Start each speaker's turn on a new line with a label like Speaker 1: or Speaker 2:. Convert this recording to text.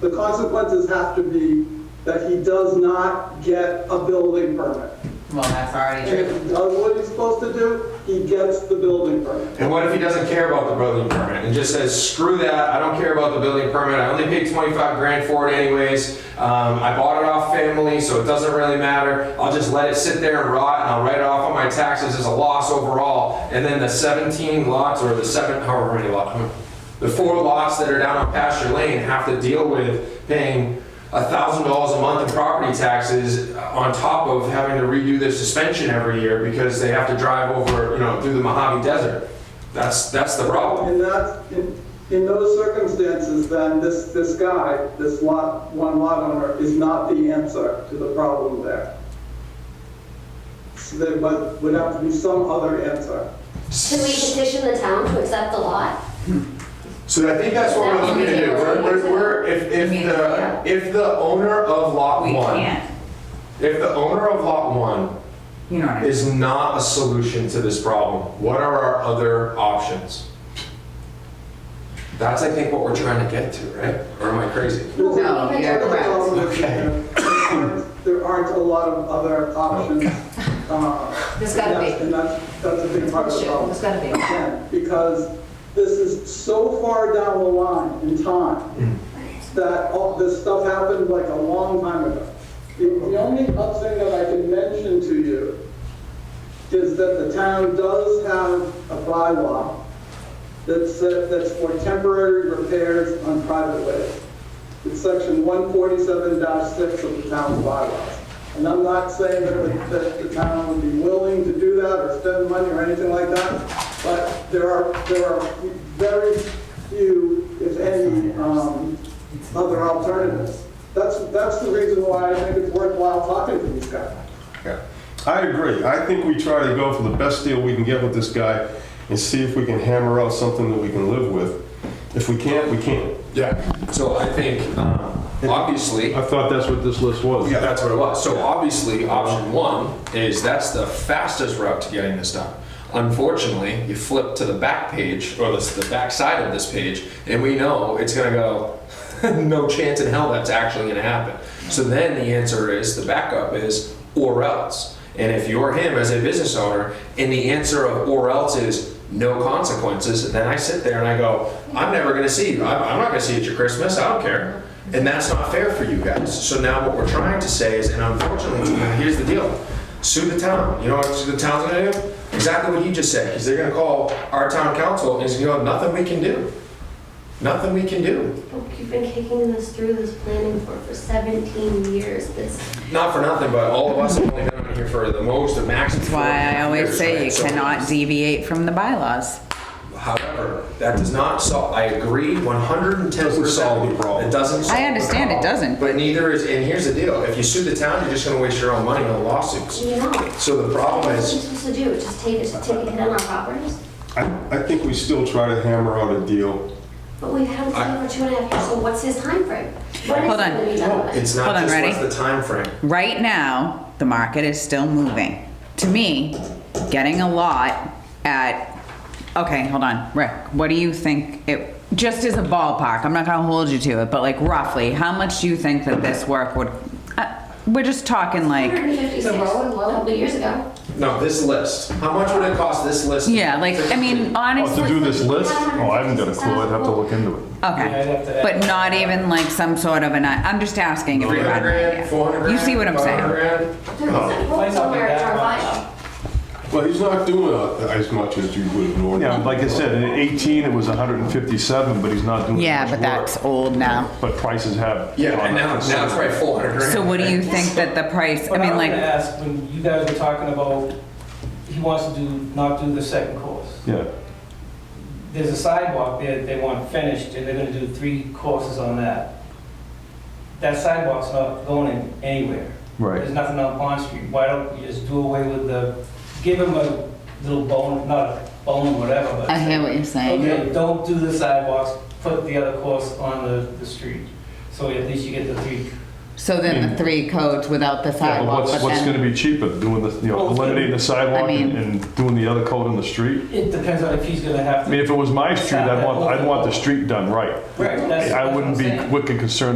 Speaker 1: the consequences have to be that he does not get a building permit.
Speaker 2: Well, that's already
Speaker 1: And if
Speaker 2: true.
Speaker 1: he does what he's supposed to do, he gets the building permit.
Speaker 3: And what if he doesn't care about the building permit and just says, screw that, I don't care about the building permit, I only paid 25 grand for it anyways. Um, I bought it off family, so it doesn't really matter. I'll just let it sit there and rot and I'll write it off on my taxes as a loss overall. And then the 17 lots or the seven, however many lots, the four lots that are down on pasture lane have to deal with paying $1,000 a month in property taxes on top of having to redo their suspension every year because they have to drive over, you know, through the Mojave Desert. That's, that's the problem.
Speaker 1: And that's, in, in those circumstances, then this, this guy, this lot, one lot owner, is not the answer to the problem there. So there would, would have to be some other answer.
Speaker 4: Can we petition the town to accept the lot?
Speaker 3: So I think that's what we're looking to do. We're, we're- we're, if, if the, if the owner of lot
Speaker 2: We
Speaker 3: one,
Speaker 2: can't,
Speaker 3: if the owner of lot one
Speaker 2: you know what I mean?
Speaker 3: is not a solution to this problem, what are our other options? That's, I think, what we're trying to get to, right? Or am I crazy?
Speaker 1: No,
Speaker 2: No,
Speaker 1: we
Speaker 2: you're
Speaker 1: can't
Speaker 2: correct.
Speaker 1: tell them that
Speaker 3: Okay.
Speaker 1: There aren't- there aren't a lot of other options. uh,
Speaker 5: There's gotta be.
Speaker 1: And that's, that's a big part of the
Speaker 5: Bullshit,
Speaker 1: problem.
Speaker 5: there's gotta be.
Speaker 1: Again, Because this is so far down the line in time that all this stuff happened like a long time ago. The the only other thing that I can mention to you is that the town does have a bylaw that's, uh, that's for temporary repairs on private ways. It's section 147-6 of the town's bylaws. And I'm not saying that the, that the town would be willing to do that or spend money or anything like that, but there are, there are very few, if any, um, other alternatives. That's, that's the reason why I think it's worthwhile talking to these guys.
Speaker 6: Yeah. I agree. I think we try to go for the best deal we can get with this guy and see if we can hammer out something that we can live with. If we can't, we can't.
Speaker 3: Yeah. So I think, um, obviously,
Speaker 6: I thought that's what this list was.
Speaker 3: Yeah, that's what it was. So obviously, option one is that's the fastest route to getting this done. Unfortunately, you flip to the back page, or the, the back side of this page, and we know it's gonna go, no chance in hell that's actually gonna happen. So then the answer is, the backup is, or else. And if you're him as a business owner, and the answer of or else is no consequences, then I sit there and I go, I'm never gonna see you. I'm, I'm not gonna see you at your Christmas. I don't care. And that's not fair for you guys. So now what we're trying to say is, and unfortunately, here's the deal: sue the town. You know what the town's gonna do? Exactly what he just said. Because they're gonna call our town council and he's gonna go, nothing we can do. Nothing we can do.
Speaker 4: You've been kicking this through this planning board for 17 years. This
Speaker 3: Not for nothing, but all of us have only been on here for the most, the max.
Speaker 2: That's why I always say you cannot deviate from the bylaws.
Speaker 3: However, that does not solve, I agree, one hundred and ten percent.
Speaker 6: solve the problem.
Speaker 3: It doesn't solve.
Speaker 2: I understand
Speaker 3: the
Speaker 2: it
Speaker 3: problem.
Speaker 2: doesn't,
Speaker 3: But neither is, and here's the deal, if you sue the town, you're just gonna waste your own money on lawsuits.
Speaker 4: You know.
Speaker 3: So the problem
Speaker 4: What are you
Speaker 3: is,
Speaker 4: supposed to do? Just take it, take it in our properties?
Speaker 6: I, I think we still try to hammer out a deal.
Speaker 4: But we've had it for two and a half years, so what's his timeframe? When
Speaker 2: Hold
Speaker 4: is it
Speaker 2: on.
Speaker 4: gonna be done
Speaker 3: no,
Speaker 4: by?
Speaker 3: it's
Speaker 2: Hold
Speaker 3: not
Speaker 2: on,
Speaker 3: just
Speaker 2: ready?
Speaker 3: what's the timeframe.
Speaker 2: Right now, the market is still moving. To me, getting a lot at, okay, hold on, Rick, what do you think it, just as a ballpark, I'm not gonna hold you to it, but like roughly, how much do you think that this work would, uh, we're just talking like,
Speaker 4: 156, a couple of years ago.
Speaker 3: No, this list, how much would it cost this list?
Speaker 2: yeah, like, I mean,
Speaker 6: Oh,
Speaker 2: honestly,
Speaker 6: to do this list? Oh, I haven't got a clue. I'd have to look into it.
Speaker 2: okay. But not even like some sort of an, I'm just asking if you
Speaker 3: Three
Speaker 2: had
Speaker 3: hundred
Speaker 2: an idea.
Speaker 3: grand, four hundred grand?
Speaker 2: You see what I'm saying?
Speaker 3: 500 grand?
Speaker 4: There was a quote somewhere in our file.
Speaker 6: Well, he's not doing uh, as much as you would have normally.
Speaker 7: Yeah, like I said, in 18, it was 157, but he's not doing
Speaker 2: Yeah,
Speaker 7: much
Speaker 2: but
Speaker 7: work.
Speaker 2: that's old now.
Speaker 7: But prices have.
Speaker 3: Yeah,
Speaker 7: gone
Speaker 3: and now,
Speaker 7: up
Speaker 3: now it's probably four hundred grand.
Speaker 2: So what do you think that the price, I
Speaker 8: But
Speaker 2: mean,
Speaker 8: I'm gonna
Speaker 2: like,
Speaker 8: ask, when you guys were talking about, he wants to do, not do the second course.
Speaker 7: Yeah,
Speaker 8: There's a sidewalk there that they want finished, and they're gonna do three courses on that. That sidewalk's not going anywhere. There's
Speaker 7: right.
Speaker 8: nothing on Pond Street. Why don't you just do away with the, give him a little bone, not a bone, whatever, but.
Speaker 2: I hear what you're saying.
Speaker 8: Okay, don't do the sidewalks, put the other course on the, the street. So at least you get the three
Speaker 2: So then the three codes without the
Speaker 7: Yeah, but
Speaker 2: sidewalk,
Speaker 7: what's,
Speaker 2: but
Speaker 7: what's gonna
Speaker 2: then,
Speaker 7: be cheaper, doing the, you know,
Speaker 8: Well, it's gonna-
Speaker 7: eliminating the sidewalk
Speaker 2: I mean-
Speaker 7: and and doing the other coat on the street?
Speaker 8: It depends on if he's gonna have
Speaker 7: I
Speaker 8: to.
Speaker 7: mean, if it was my street, I'd want, I'd want the street done right.
Speaker 8: Right, that's-
Speaker 7: I wouldn't be
Speaker 8: that's what I'm saying.
Speaker 7: wicked concerned